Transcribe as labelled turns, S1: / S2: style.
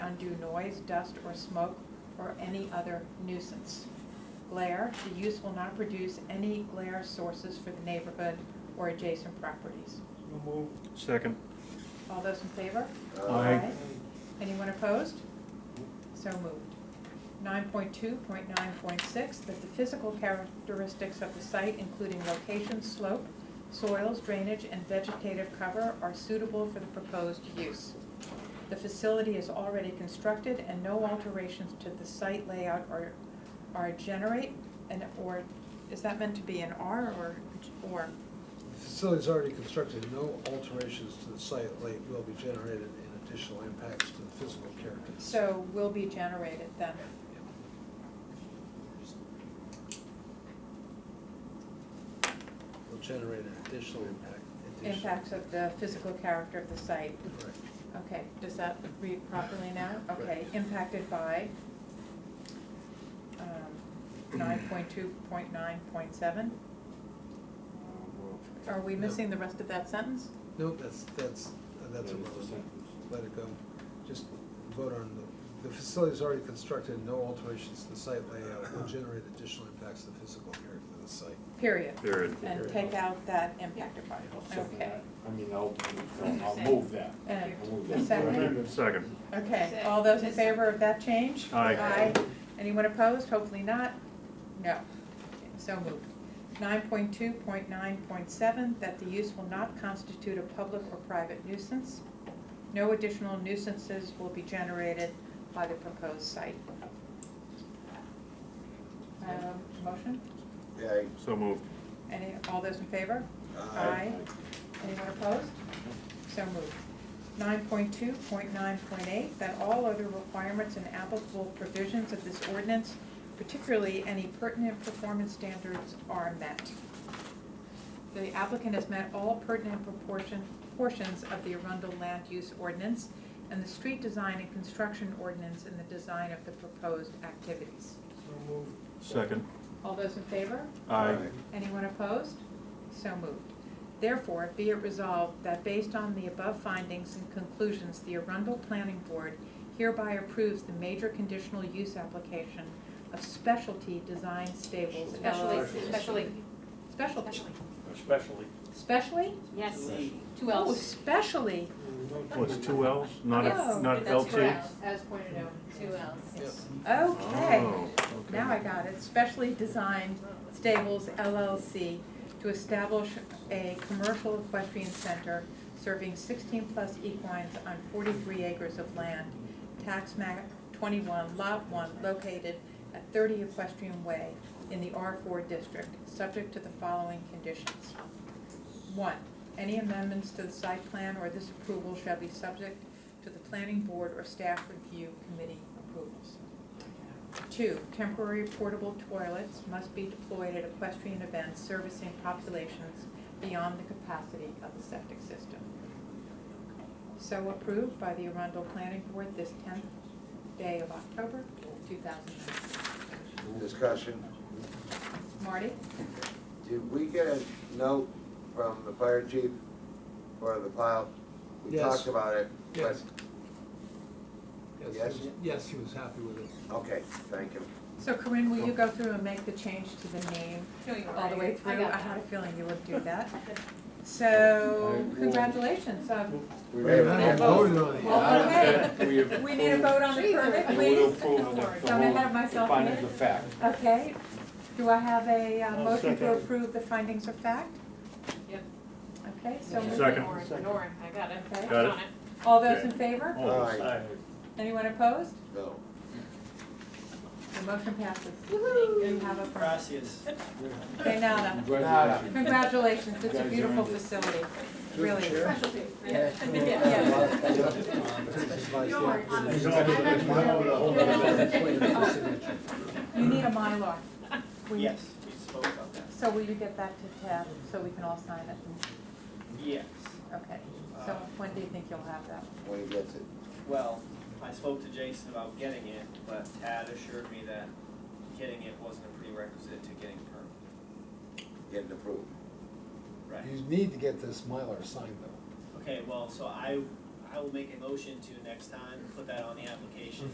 S1: due noise, dust, or smoke, or any other nuisance. Glare, the use will not produce any glare sources for the neighborhood or adjacent properties.
S2: So move.
S3: Second.
S1: All those in favor?
S3: Aye.
S1: Anyone opposed? So moved. Nine point two point nine point six, that the physical characteristics of the site, including location, slope, soils, drainage, and vegetative cover are suitable for the proposed use. The facility is already constructed and no alterations to the site layout are, are generate and, or, is that meant to be an R or, or?
S4: The facility's already constructed, no alterations to the site lake will be generated and additional impacts to the physical character.
S1: So will be generated then?
S4: Will generate an additional impact. additional-
S1: Impacts of the physical character of the site.
S4: Correct.
S1: Okay, does that read properly now? Okay,
S4: Right.
S1: impacted by um, nine point two point nine point seven? Are we
S4: No.
S1: missing the rest of that sentence?
S4: No, that's, that's, uh, that's a
S2: That is the
S4: no.
S2: sentence.
S4: Let it go. Just vote on the, the facility's already constructed, no alterations to the site layout will generate additional impacts to the physical character of the site.
S1: Period.
S3: Period.
S1: And take out that impacted by,
S2: I'll second
S1: okay.
S2: that. I mean, I'll, I'll- I'll move that.
S1: And
S2: I'll move
S1: a
S2: that.
S1: second.
S3: Second.
S1: Okay, all those in favor of that change?
S3: Aye.
S1: Anyone opposed? Hopefully not. No. So moved. Nine point two point nine point seven, that the use will not constitute a public or private nuisance. No additional nuisances will be generated by the proposed site. Um, Motion?
S5: Yay.
S3: So moved.
S1: Any, all those in favor?
S5: Aye.
S1: Anyone opposed? So moved. Nine point two, point nine, point eight, that all other requirements and applicable provisions of this ordinance, particularly any pertinent performance standards, are met. The applicant has met all pertinent proportion, portions of the Arundel Land Use Ordinance and the street design and construction ordinance in the design of the proposed activities.
S2: So move.
S3: Second.
S1: All those in favor?
S3: Aye.
S1: Anyone opposed? So moved. Therefore, be it resolved that based on the above findings and conclusions, the Arundel Planning Board hereby approves the major conditional use application of Specialty Design Stables
S6: Especially,
S1: LLC.
S6: especially,
S1: Specialty.
S6: especially,
S2: Especially.
S1: Specially?
S6: yes, two
S1: Oh,
S6: L's.
S1: specially.
S3: Oh, it's two Ls, not,
S1: No,
S3: a- not
S6: That's
S3: LT?
S6: correct, as pointed out, two L's.
S1: Okay.
S3: Oh, okay.
S1: Now I got it. Specially Designed Stables LLC to establish a commercial equestrian center serving sixteen plus equines on forty-three acres of land, tax map twenty-one, lot one, located at thirty Equestrian Way in the R four district, subject to the following conditions. One, any amendments to the site plan or this approval shall be subject to the planning board or staff review committee approvals. Two, temporary portable toilets must be deployed at equestrian events servicing populations beyond the capacity of the septic system. So approved by the Arundel Planning Board this tenth day of October, two thousand nineteen.
S5: Discussion.
S1: Marty?
S5: Did we get a note from the fire chief for the plow? We
S4: Yes.
S5: talked about it, but,
S4: Yes. Yes, he
S5: Yes?
S4: was- Yes, he was happy with it.
S5: okay, thank you.
S1: So Corinne, will you go through and make the change to the name
S6: No, you're
S1: all the way
S6: right.
S1: through?
S6: I got
S1: had a
S6: that.
S1: feeling you would do that. So congratulations. Um,
S2: We
S4: Wait a minute, I haven't voted on it yet.
S1: Well, okay.
S2: We have-
S1: We need a vote on the permit,
S2: And
S1: please.
S2: we'll approve the- the
S1: Don't
S2: whole-
S1: ahead of myself.
S2: The findings of fact.
S1: Okay, do I have a uh,
S2: I'll
S1: motion to
S2: second.
S1: approve the findings of fact?
S6: Yep.
S1: Okay, so moved.
S3: Second.
S6: Norm, Norm, I got it.
S1: Okay.
S3: Got it.
S6: On
S1: all those in favor?
S3: Oh,
S5: Aye.
S1: Anyone opposed?
S5: No.
S1: The motion passes. You have a permit.
S7: Gracias.
S1: Okay, nada.
S2: Congratulations.
S1: Congratulations, it's a
S2: You guys
S1: beautiful
S2: earned it.
S1: facility, It really is.
S6: Specialty, yeah. Norm, on the-
S1: You need a Mylar. We-
S7: Yes, we spoke about that.
S1: So will you get that to Tab, so we can all sign it?
S7: Yes.
S1: Okay, so when do you think you'll have that?
S5: When he gets it.
S7: Well, I spoke to Jason about getting it, but Tad assured me that getting it wasn't a prerequisite to getting a
S5: Getting approved.
S7: permit. Right.
S4: You need to get this Mylar signed though.
S7: Okay, well, so I, I will make a motion to next time, put that on the application